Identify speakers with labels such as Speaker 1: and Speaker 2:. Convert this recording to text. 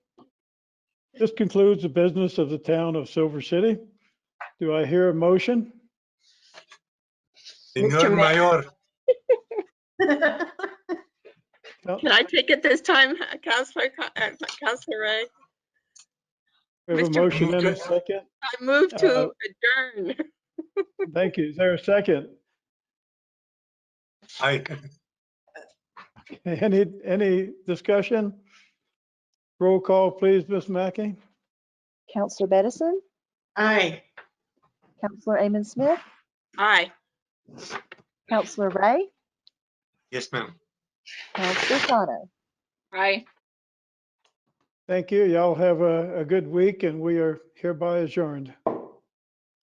Speaker 1: This concludes the business of the town of Silver City. Do I hear a motion?
Speaker 2: Mr.
Speaker 3: Señor Mayor,
Speaker 2: Can I take it this time, Counselor, Co- uh, Counselor Ray?
Speaker 1: We have a
Speaker 2: Mr.
Speaker 1: motion and a
Speaker 3: Lucas.
Speaker 1: second.
Speaker 2: I move
Speaker 1: Uh,
Speaker 2: to adjourn.
Speaker 1: Thank you. Is there a second?
Speaker 3: I,
Speaker 1: Any, any discussion? Roll call, please, Ms. Mackey.
Speaker 4: Counselor Bedison,
Speaker 5: Aye.
Speaker 4: Counselor Amon Smith,
Speaker 2: Aye.
Speaker 4: Counselor Ray,
Speaker 3: yes, ma'am.
Speaker 4: Counselor Sano.
Speaker 2: Aye.
Speaker 1: Thank you. Y'all have a, a good week and we are hereby adjourned.